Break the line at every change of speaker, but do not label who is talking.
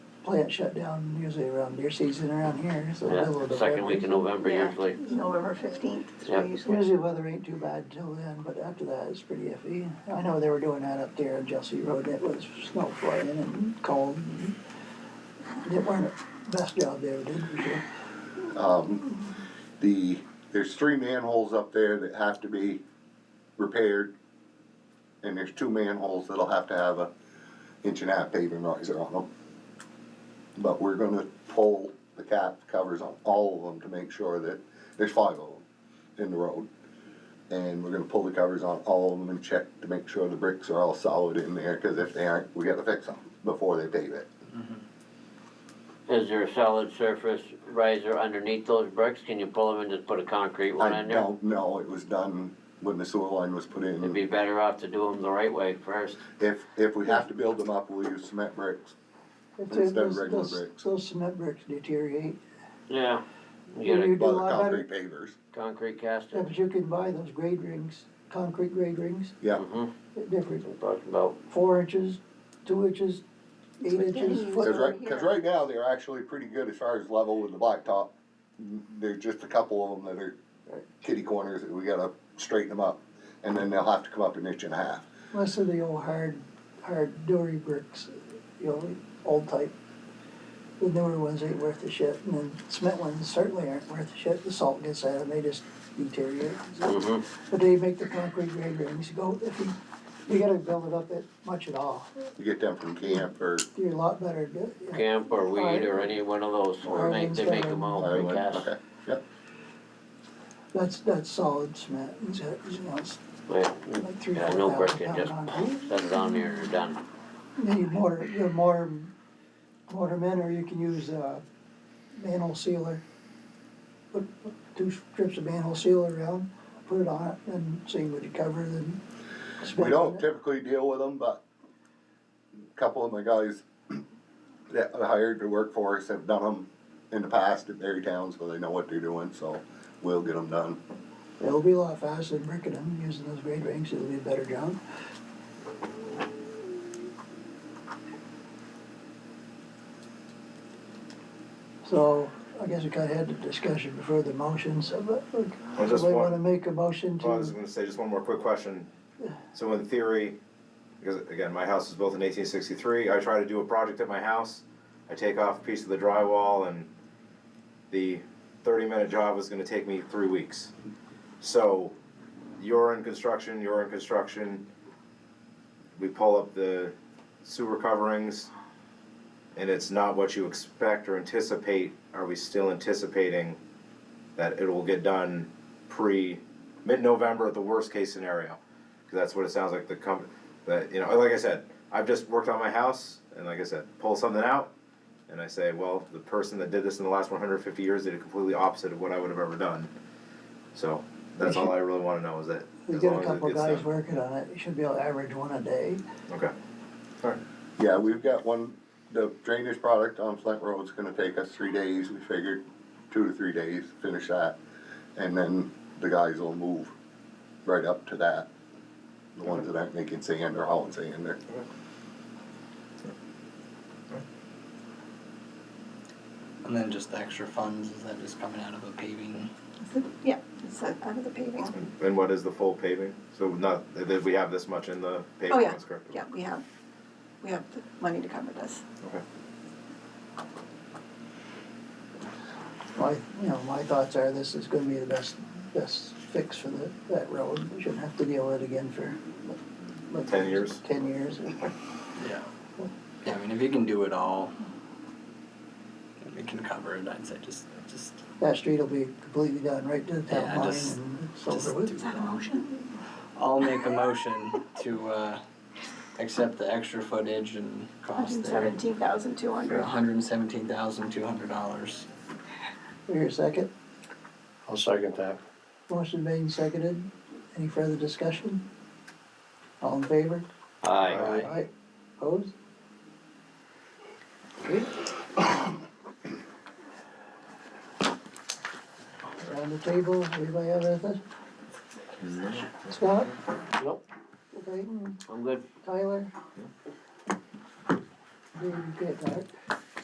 plant shut down usually around deer season around here, so. middle
Yeah,
of
second
November.
week in November
Yeah.
usually.
November fifteenth,
Yeah.
usually.
Usually weather ain't too bad till then, but after that it's pretty iffy. I know they were doing that up there on Jesse Road, it was snow flying and cold. and They weren't the best job they ever did for sure.
The, there's three manholes up there that have to be repaired. And there's two manholes that'll have to have a inch and a half paving riser on them. But we're gonna pull the cap covers on all of them to make sure that, there's five of them in the road. And we're gonna pull the covers on all of them and check to make sure the bricks are all solid in there, cause if they aren't, we gotta fix them before they pave it.
Is there a solid surface riser underneath those bricks? Can you pull them and just put a concrete one
I
in there?
don't know, it was done when the sewer line was put in.
It'd be better off to do them the right way first.
If, if we have to build them up, we'll use cement bricks.
If
Instead of
those-
regular
those-
bricks.
Those cement bricks deteriorate.
Yeah, you
You
get
do a
Well,
lot better,
concrete pavers,
a concrete
yeah,
caster.
but you can buy those grade rings, concrete grade rings,
yeah.
Mm-hmm,
they're different,
talking about,
four inches, two inches, eight
But then
inches,
you-
foot.
Cause right, cause right now, they're actually pretty good as far as level with the blacktop. There's just a couple of them that are uh, kitty corners that we gotta straighten them up. And then they'll have to come up an inch and a half.
Most of the old hard, hard dory bricks, you know, old type. The newer ones ain't worth a shit, and then cement ones certainly aren't worth a shit, the salt gets at them, they just deteriorate.
mm-hmm,
But they make the concrete grade rings go, if you, you gotta build it up at much at all,
You get them from camp or,
you're a lot better to do it.
camp or weed or any one of those, or make, they make them all
or,
precast.
okay, yep.
That's, that's solid cement, it's, you know, it's
Yeah,
like three,
Yeah,
four
no brick,
thousand pound
it just-
on.
set it on there, you're done.
Then you mortar, you mortar, mortar men, or you can use, uh, manhole sealer. Put put two strips of manhole sealer around, put it on it, and see what you cover, then.
We
spend
don't
it.
typically deal with them, but a couple of my guys that I hired to work for us have done them in the past at Berry Towns, so they know what they're doing, so we'll get them done.
It'll be a lot faster than bricking them, using those grade rings, it'll be a better job. So, I guess we kinda had the discussion before the motions, but,
I just
somebody wanna
want-
make a motion to?
Well, I was gonna say, just one more quick question. So in theory, because again, my house was built in eighteen sixty-three, I try to do a project at my house, I take off a piece of the drywall and the thirty-minute job was gonna take me three weeks. So, you're in construction, you're in construction, we pull up the sewer coverings, and it's not what you expect or anticipate, are we still anticipating that it will get done pre mid-November at the worst case scenario? Because that's what it sounds like the company that you know. Like I said, I've just worked on my house, and like I said, pull something out, and I say, well, the person that did this in the last 150 years did it completely opposite of what I would have ever done. So that's all I really want to know is that
We
as
got
long
a
as it
couple
gets
guys
done.
working on it, you should be able to average one a day.
Okay. All right.
Yeah, we've got one, the drainage product on Flint Road's gonna take us three days, we figured, two to three days, finish that. And then the guys will move right up to that, the ones that aren't making sand or hauling sand there.
And then just the extra funds, is that just coming out of a paving?
Is it- Yeah, it's uh, out of the paving.
And what is the full paving? So not that we have this much in the paving.
Oh, yeah,
that's correct.
yeah, we have, we have the money to cover this.
Okay.
My, you know, my thoughts are this is gonna be the best, best fix for the, that road. We shouldn't have to deal with it again for. like,
10 years?
Ten years.
Yeah. Yeah, I mean, if you can do it all, it can cover it, I'd say just, just,
That street will be completely done right to the town
Yeah,
line
just-
and it's
just
over
do
with.
Is that a
that.
motion?
I'll make a motion to, uh, accept the extra footage and cost
Hundred
there.
seventeen thousand two
For
hundred.
hundred and seventeen thousand, two hundred dollars.
Here, second.
I'll second that.
Motion made and seconded. Any further discussion? All in favor?
Aye.
Aye.
Opposed? Okay. Around the table, anybody have anything? Scott?
Nope,
Clayton?
I'm good.
Tyler? Dave, you can't talk.